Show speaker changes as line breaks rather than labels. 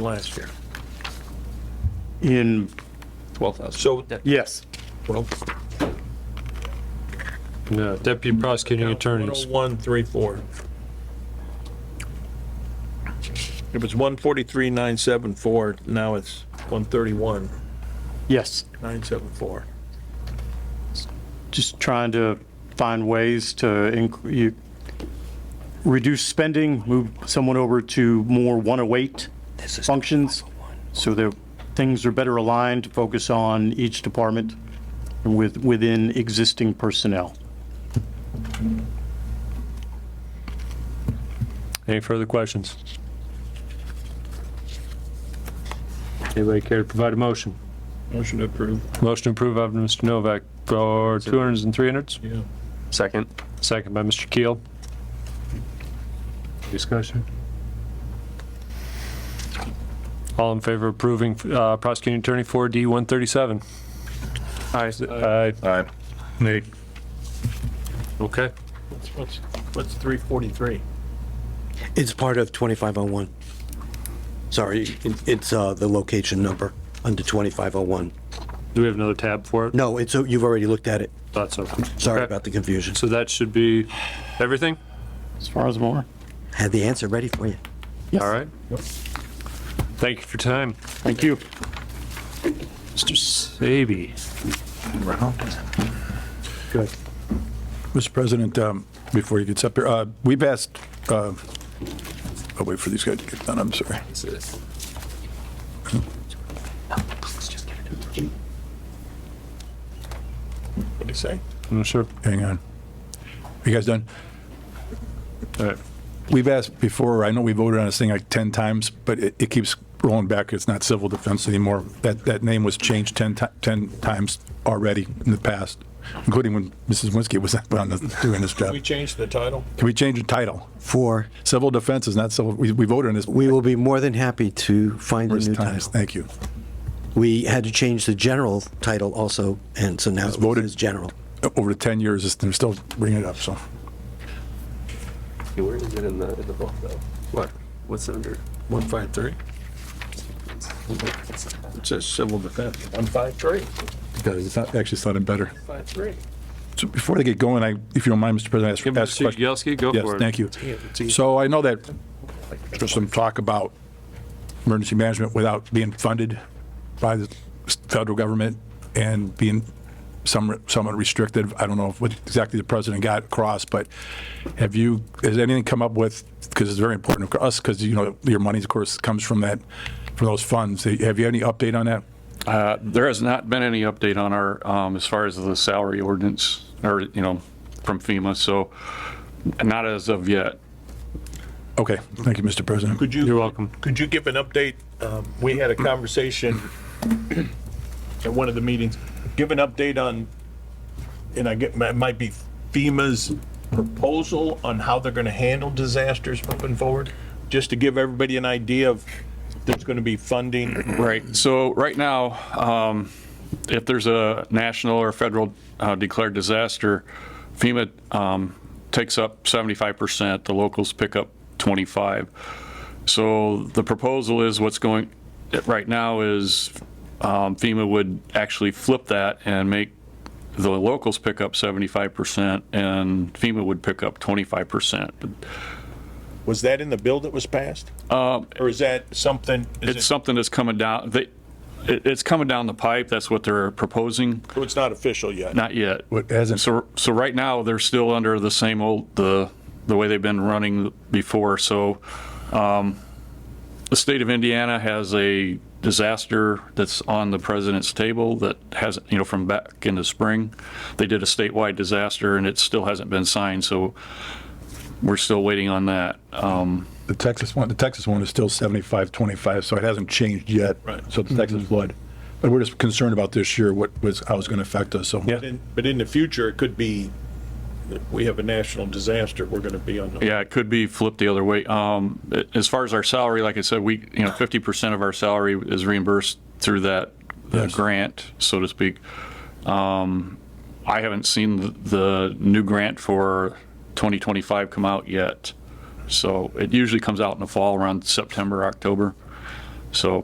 last year.
In,
12,000.
So,
yes,
well,
No, deputy prosecuting attorneys.
10134. If it's 143,974, now it's 131,974.
yes. Just trying to find ways to inc- you- reduce spending, move someone over to more 108 functions, so that things are better aligned, to focus on each department with, within existing personnel.
Any further questions? Anybody care to provide a motion?
Motion to approve.
Motion approved by Mr. Novak for 200s and 300s,
Yeah.
Second.
second by Mr. Keel. Discussion? All in favor of approving uh, prosecuting attorney 4D 137? Aye.
Aye.
Aye. Okay.
What's, what's, what's 343?
It's part of 2501. Sorry, it- it's uh, the location number under 2501.
Do we have another tab for it?
No, it's, uh, you've already looked at it.
Thought so.
Sorry
Okay.
about the confusion.
So that should be everything?
As far as more?
Had the answer ready for you.
Yes.
All right. Thank you for your time.
Thank you.
Mr. Saby.
Mr. President, um, before he gets up here, uh, we've asked, uh, I'll wait for these guys to get done, I'm sorry.
What'd he say?
I'm sure.
Hang on. You guys done? Uh,
All right.
We've asked before, I know we voted on this thing like 10 times, but it it keeps rolling back. It's not civil defense anymore. That, that name was changed 10 ti- 10 times already in the past, including when Mrs. Winsky was on the- doing this job.
We changed the title?
Can we change the title?
For,
Civil defense is not civil, we we voted on this
we will be more than happy to find a
numerous
new
times.
title.
Thank you.
We had to change the general title also, and so now it
voted.
is general.
Over the 10 years, it's- they're still bringing it up, so.
Where is it in the, in the book though? What? What's under?
153? It says civil defense. 153.
Because it's not, actually sounded better.
153.
So before they get going, I, if you don't mind, Mr. President, I ask-
Give
ask a
Mr.
question.
Yagowski, go
Yes,
for it.
thank you. So I know that there's some talk about emergency management without being funded by the federal government and being some- somewhat restricted. I don't know what exactly the president got across, but have you, has anything come up with, because it's very important to us, because, you know, your money, of course, comes from that, from those funds. Have you any update on that?
Uh, There has not been any update on our, um, as far as the salary ordinance, or, you know, from FEMA, so not as of yet.
Okay, thank you, Mr. President.
Could you?
You're welcome.
Could you give an update? Um, We had a conversation at one of the meetings. Give an update on, and I get, it might be FEMA's proposal on how they're going to handle disasters moving forward? Just to give everybody an idea of if there's going to be funding.
Right, so right now, um, if there's a national or federal uh, declared disaster, FEMA um, takes up 75%, the locals pick up 25. So the proposal is what's going, right now is um, FEMA would actually flip that and make the locals pick up 75% and FEMA would pick up 25%.
Was that in the bill that was passed? Or is that something? is
It's
it-
something that's coming down, they, it- it's coming down the pipe, that's what they're proposing.
so It's not official yet.
Not yet.
What hasn't-
So, so right now, they're still under the same old, the, the way they've been running before, so, um, the state of Indiana has a disaster that's on the president's table that hasn't, you know, from back in the spring. They did a statewide disaster and it still hasn't been signed, so we're still waiting on that. Um,
The Texas one, the Texas one is still 75, 25, so it hasn't changed yet.
Right.
So the Texas flood. But we're just concerned about this year, what was, how it's going to affect us, so.
But in- But in the future, it could be, that we have a national disaster, we're going to be on the
Yeah, it could be flipped the other way. Um, a- as far as our salary, like I said, we, you know, fifty percent of our salary is reimbursed through that uh,
Yes.
grant, so to speak. Um, I haven't seen the, the new grant for twenty twenty-five come out yet. So it usually comes out in the fall around September, October. So